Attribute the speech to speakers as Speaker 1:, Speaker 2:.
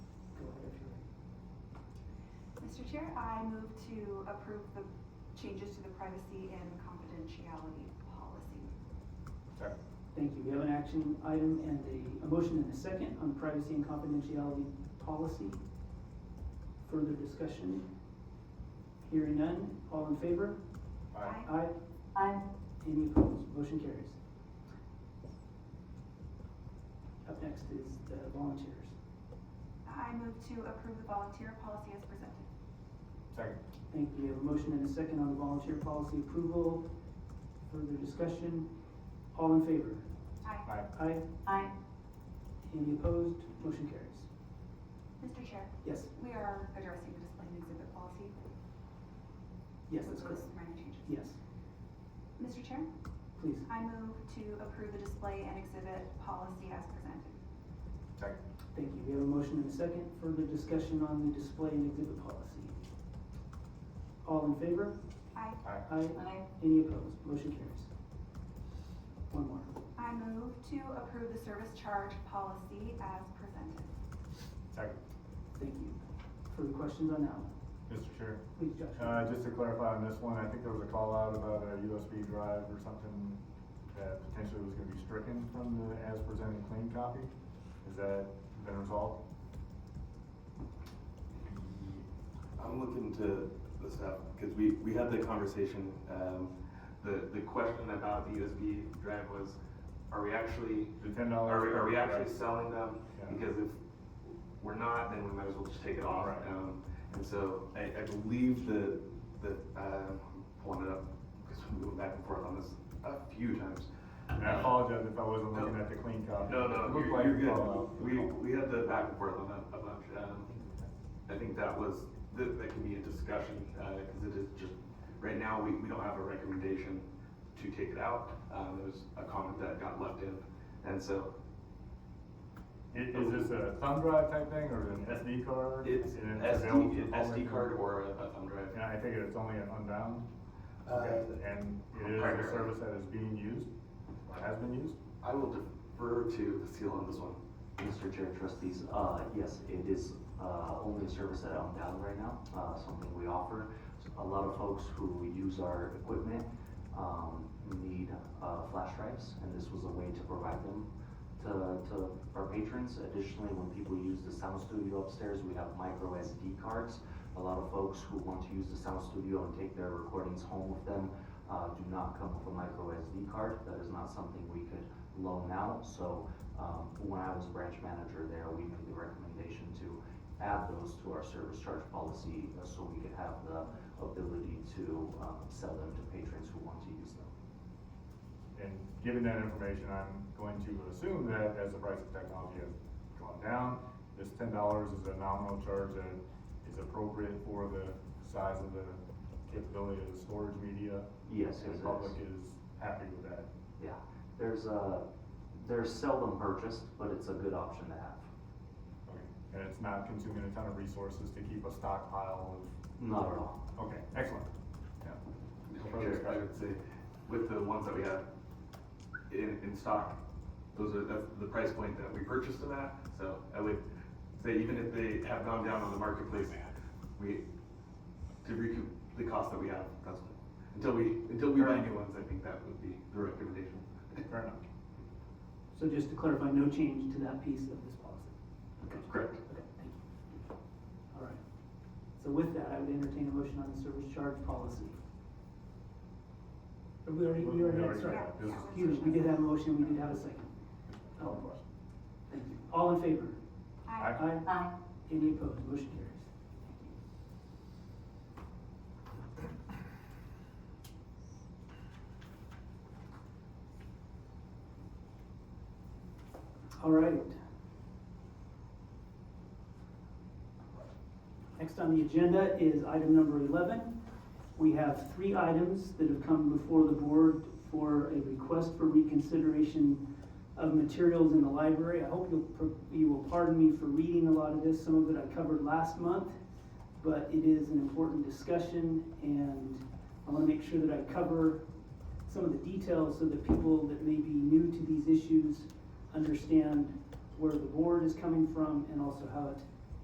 Speaker 1: Mr. Chair, I move to approve the changes to the privacy and confidentiality policy.
Speaker 2: Second.
Speaker 3: Thank you. We have an action item and a, a motion and a second on privacy and confidentiality policy. Further discussion? Hearing none. All in favor?
Speaker 2: Aye.
Speaker 3: Aye.
Speaker 4: Aye.
Speaker 3: Any opposed? Motion carries. Up next is the volunteers.
Speaker 1: I move to approve the volunteer policy as presented.
Speaker 2: Second.
Speaker 3: Thank you. We have a motion and a second on the volunteer policy approval. Further discussion? All in favor?
Speaker 1: Aye.
Speaker 2: Aye.
Speaker 3: Aye.
Speaker 4: Aye.
Speaker 3: Any opposed? Motion carries.
Speaker 1: Mr. Chair,
Speaker 3: Yes,
Speaker 1: we are addressing the display and exhibit policy.
Speaker 3: yes, that's
Speaker 1: Those
Speaker 3: correct.
Speaker 1: minor changes.
Speaker 3: Yes,
Speaker 1: Mr. Chair,
Speaker 3: please.
Speaker 1: I move to approve the display and exhibit policy as presented.
Speaker 2: Second.
Speaker 3: Thank you. We have a motion and a second. Further discussion on the display and exhibit policy. All in favor?
Speaker 1: Aye.
Speaker 2: Aye.
Speaker 3: Aye.
Speaker 4: Aye.
Speaker 3: Any opposed? Motion carries. One more.
Speaker 1: I move to approve the service charge policy as presented.
Speaker 2: Second.
Speaker 3: Thank you. Further questions on that one?
Speaker 2: Mr. Chair,
Speaker 3: Please, Josh.
Speaker 2: uh, just to clarify on this one, I think there was a call out about a USB drive or something that potentially was gonna be stricken from the as presented clean copy. Has that been resolved?
Speaker 5: I'm looking to the staff, because we, we had the conversation, um, the, the question about the USB drive was, are we actually,
Speaker 2: The ten dollars?
Speaker 5: are we, are we actually selling them?
Speaker 2: Yeah.
Speaker 5: Because if we're not, then we might as well just take it off.
Speaker 2: Right.
Speaker 5: Um, and so I, I believe the, the, um, pulling it up, because we went back and forth on this a few times.
Speaker 2: And I apologize if I wasn't looking at the clean copy.
Speaker 5: No, no,
Speaker 2: It looked like
Speaker 5: you're, you're
Speaker 2: a call
Speaker 5: good.
Speaker 2: out.
Speaker 5: We, we had the back and forth on that a bunch. Um, I think that was, that, that can be a discussion, uh, cause it is just, right now, we, we don't have a recommendation to take it out. Um, there was a comment that got left in, and so
Speaker 2: I- Is this a thumb drive type thing or an SD card?
Speaker 5: it's
Speaker 2: And available
Speaker 5: SD,
Speaker 2: for
Speaker 5: SD
Speaker 2: public?
Speaker 5: card or a a thumb drive.
Speaker 2: And I think it's only an unbound?
Speaker 5: Uh,
Speaker 2: Okay, and it is a
Speaker 5: primarily.
Speaker 2: service that is being used, or has been used?
Speaker 5: I will defer to Cecile on this one.
Speaker 6: Mr. Chair, trustees, uh, yes, it is, uh, only a service that I'm down right now, uh, something we offer. A lot of folks who use our equipment, um, need, uh, flash drives, and this was a way to provide them to, to our patrons. Additionally, when people use the sound studio upstairs, we have micro SD cards. A lot of folks who want to use the sound studio and take their recordings home with them, uh, do not come with a micro SD card. That is not something we could loan out, so, um, when I was branch manager there, we made the recommendation to add those to our service charge policy, uh, so we could have the ability to, um, sell them to patrons who want to use them.
Speaker 2: And given that information, I'm going to assume that as the price of technology has gone down, this ten dollars is a nominal charge that is appropriate for the size of the capability of the storage media.
Speaker 6: Yes,
Speaker 2: And
Speaker 6: it
Speaker 2: the
Speaker 6: is.
Speaker 2: public is happy with that.
Speaker 6: Yeah, there's a, they're seldom purchased, but it's a good option to have.
Speaker 2: Okay. And it's not consuming a ton of resources to keep a stockpile
Speaker 6: Not at all.
Speaker 2: of, okay, excellent. Yeah. No further
Speaker 5: Sure, I
Speaker 2: discussion.
Speaker 5: would say, with the ones that we have in, in stock, those are, that's the price point that we purchased them at, so I would say even if they have gone down on the marketplace, we, to recoup the cost that we have, that's, until we, until we buy new ones, I think that would be the recommendation.
Speaker 2: Fair enough.
Speaker 3: So just to clarify, no change to that piece of this policy?
Speaker 5: Correct.
Speaker 3: Okay, thank you. All right. So with that, I would entertain a motion on the service charge policy. Or We already, we
Speaker 2: We
Speaker 3: already,
Speaker 2: already
Speaker 3: sorry.
Speaker 2: had that. This is-
Speaker 3: Excuse me, we did have a motion, we did have a second. Oh,
Speaker 2: No question.
Speaker 3: Thank you. All in favor?
Speaker 1: Aye.
Speaker 2: Aye.
Speaker 4: Aye.
Speaker 3: Any opposed? Motion carries. All right. Next on the agenda is item number eleven. We have three items that have come before the board for a request for reconsideration of materials in the library. I hope you'll, per- you will pardon me for reading a lot of this, some of it I covered last month, but it is an important discussion, and I wanna make sure that I cover some of the details so that people that may be new to these issues understand where the board is coming from and also how it